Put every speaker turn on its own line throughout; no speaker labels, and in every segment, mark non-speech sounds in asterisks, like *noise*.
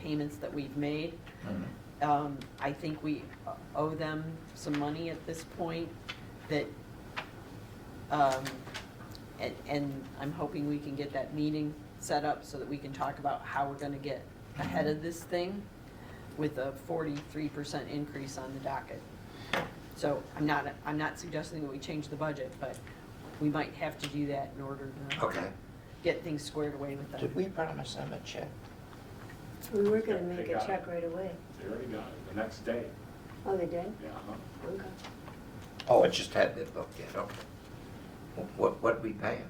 payments that we've made.
Mm-hmm.
Um, I think we owe them some money at this point that, um, and, and I'm hoping we can get that meeting set up so that we can talk about how we're gonna get ahead of this thing with a forty-three percent increase on the docket. So I'm not, I'm not suggesting that we change the budget, but we might have to do that in order to
Okay.
get things squared away with them.
Did we promise them a check?
We were gonna
Yeah,
make
they
a
got
check
it.
right away.
They already got it, the next day,
Oh, they did?
yeah, uh-huh.
Okay.
Oh, it just hadn't been looked yet, okay. Wh- What, what we paying?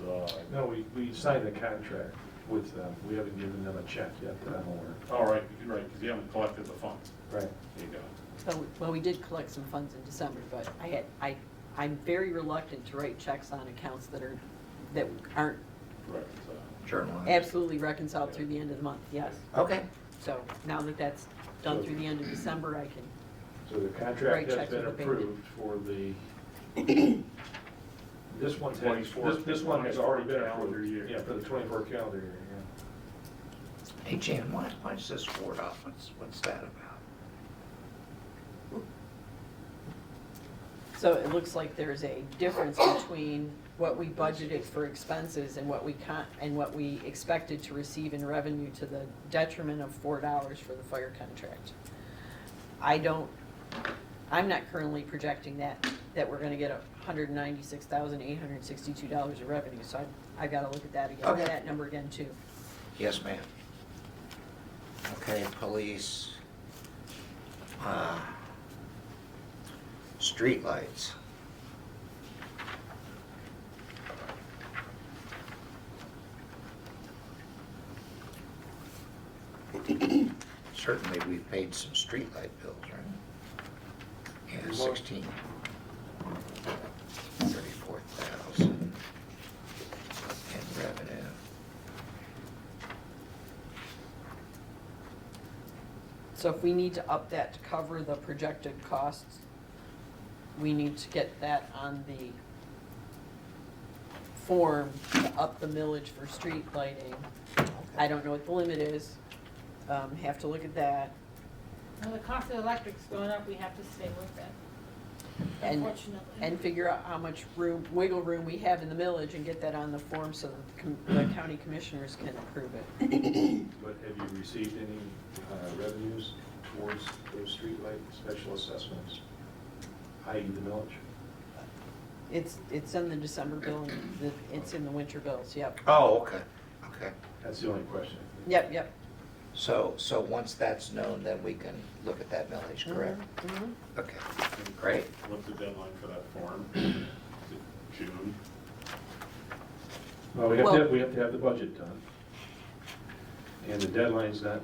So,
No, we, we signed a contract with them. We haven't given them a check yet that I'm aware of.
all right, you're right, because you haven't collected the funds,
Right.
there you go.
So, well, we did collect some funds in December, but I had, I, I'm very reluctant to write checks on accounts that are, that aren't
Correct, so,
Journal entries?
absolutely reconciled through the end of the month, yes.
Okay,
So now that that's done through the end of December, I can,
So the
Right,
contract
check
has
to
been
the bank.
approved for the, this one's, had- this,
24
this one has already been
calendar
approved.
year.
Yeah, for the twenty-four calendar year, yeah.
hey Jan, why, why is this ward off, what's, what's that about?
so it looks like there's a difference between what we budgeted for expenses and what we con, and what we expected to receive in revenue to the detriment of four dollars for the fire contract. I don't, I'm not currently projecting that, that we're gonna get a hundred and ninety-six thousand, eight hundred and sixty-two dollars of revenue, so I, I gotta look at that again,
Okay.
that number again too.
Yes, ma'am. Okay, police. Uh, Streetlights. *clears throat* Certainly, we've paid some streetlight bills, right? Yeah,
Well-
sixteen. Thirty-four thousand in revenue.
So if we need to up that to cover the projected costs, we need to get that on the form to up the millage for street lighting. I don't know what the limit is, um, have to look at that.
Well, the cost of electric's going up, we have to stay with it,
and
unfortunately.
And figure out how much room, wiggle room we have in the millage and get that on the form so that the com- the county commissioners can approve it.
But have you received any uh, revenues towards those streetlight special assessments, i.e. the millage?
It's, it's in the December bill, and the- it's in the winter bills, yep,
Oh, okay, okay.
That's the only question.
yep, yep.
So, so once that's known, then we can look at that millage, correct?
Mhm, mhm.
Okay, great.
what's the deadline for that form? Is it June?
Well, we have to,
Well-
have- we have to have the budget done. And the deadline's not,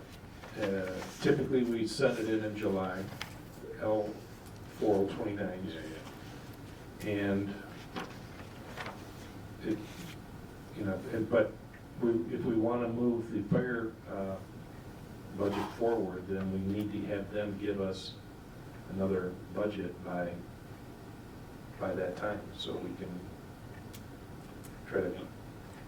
uh, typically, we send it in in July, L four oh twenty-nine.
Yeah, yeah,
And it, you know, and- but we, if we want to move the fire uh, budget forward, then we need to have them give us another budget by, by that time, so we can try to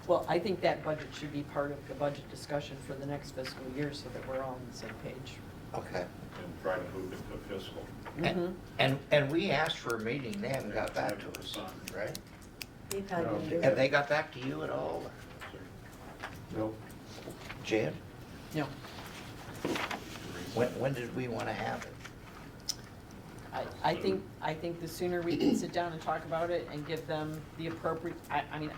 Well, I think that budget should be part of the budget discussion for the next fiscal year so that we're all on the same page.
Okay.
and try to move it to fiscal.
Mhm.
And, and, and we asked for a meeting, they haven't got back to us, right?
They
No.
probably didn't do it.
Have they got back to you at all,
Nope.
Jan?
No,
When, when did we want to have it?
I, I think, I think the sooner we can sit down and talk about it and give them the appropriate, I, I mean,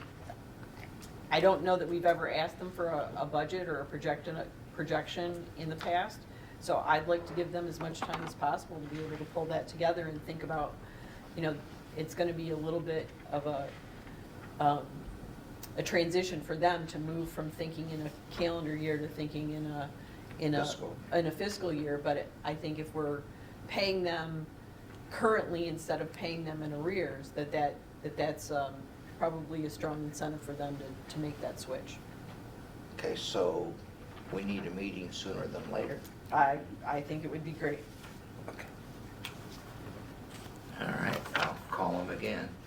I don't know that we've ever asked them for a, a budget or a projection, projection in the past. So I'd like to give them as much time as possible to be able to pull that together and think about, you know, it's gonna be a little bit of a, um, a transition for them to move from thinking in a calendar year to thinking in a, in a,
Fiscal.
in a fiscal year. But it- I think if we're paying them currently instead of paying them in arrears, that that, that that's, um, probably a strong incentive for them to, to make that switch.
Okay, so we need a meeting sooner than later?
I, I think it would be great.
Okay. All right, I'll call them again. Uh, Uh,